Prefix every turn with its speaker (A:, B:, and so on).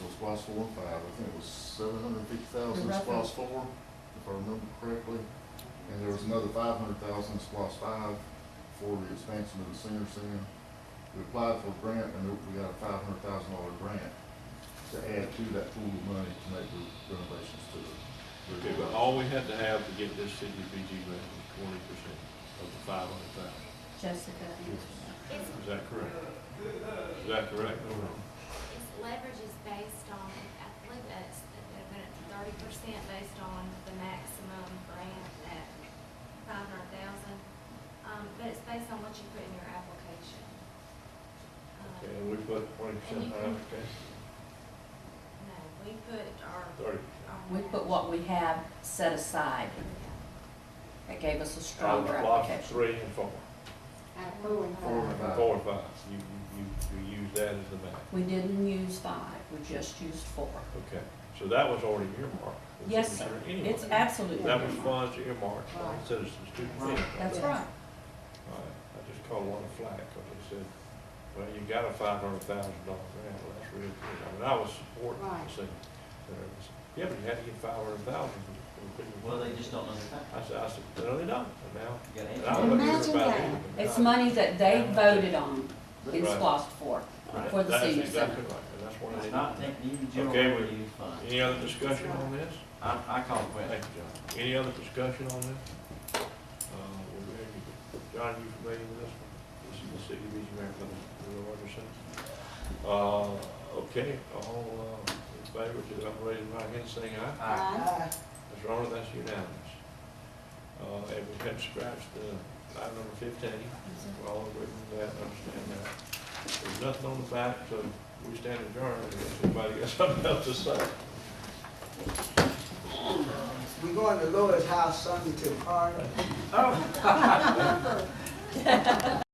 A: class four and five, I think it was seven hundred and fifty thousand in
B: You're right.
A: class four, if I remember correctly. And there was another five hundred thousand in class five for the expansion of the senior center. We applied for a grant and we got a five hundred thousand dollar grant to add to that pool of money to make the renovations to the.
C: Okay, but all we had to have to get this CDBG grant was twenty percent of the five hundred thousand.
B: Jessica.
D: It's,
C: Is that correct? Is that correct? Mm-hmm.
D: it's leverage is based on, I believe that's, thirty percent based on the maximum grant at five hundred thousand. Um, but it's based on what you put in your application. Um,
C: Okay, and we put twenty percent in our
E: Mm-hmm.
C: application,
D: No, we put our.
C: thirty.
D: our-
B: We put what we have set aside.
D: Yeah.
B: That gave us a
C: Out of
B: stronger
C: the blocks,
B: application.
C: Three and four,
E: At four and
A: Four
E: five.
A: and five.
C: four and five, you, you, you, you use that as the max.
B: We didn't use five, we just used four.
C: Okay, so that was already earmarked. for the
B: Yes,
C: citizen
B: sir.
C: anyway.
B: It's absolutely.
C: That was
B: right.
C: funds earmarked for the citizens student
A: Right.
C: benefit.
B: That's
E: Yes.
B: right.
C: All right, I just called one a flag, because they said, well, you got a five hundred thousand dollar grant, well, that's real good. I mean, I was supporting
E: Right.
C: the city. Yeah, but you had to get five hundred thousand from the people.
F: Well, they just don't know the
C: I said, I said, no, they don't, and now. and I
F: fact.
C: wasn't here
E: Imagine
C: about
E: that.
C: it, but
B: It's
C: now-
B: money that they voted on in
C: Right.
B: SLOSS four,
C: Right,
B: for the
C: that's
B: senior
C: exactly
B: center.
C: right, and that's one of
F: It's
C: the,
F: not technically general
C: Okay,
F: revenue use fund.
C: any other discussion on this?
F: I, I call it
C: Thank
F: quit.
C: you, John. Any other discussion on this? Uh, we're ready to- John, you familiar with this one? This is the city of East Marathon, Bill Anderson. Uh, okay, all, uh, in favor, to up raise your right hand, saying aye.
F: Aye.
C: Mr. Arnold, that's unanimous. Uh, and we had scratched the item number fifteen, we're all agree with that, understand that. There's nothing on the back, so we stand adjourned, if anybody got something else to say.
G: We're going to Laura's house Sunday to the party.
F: Oh.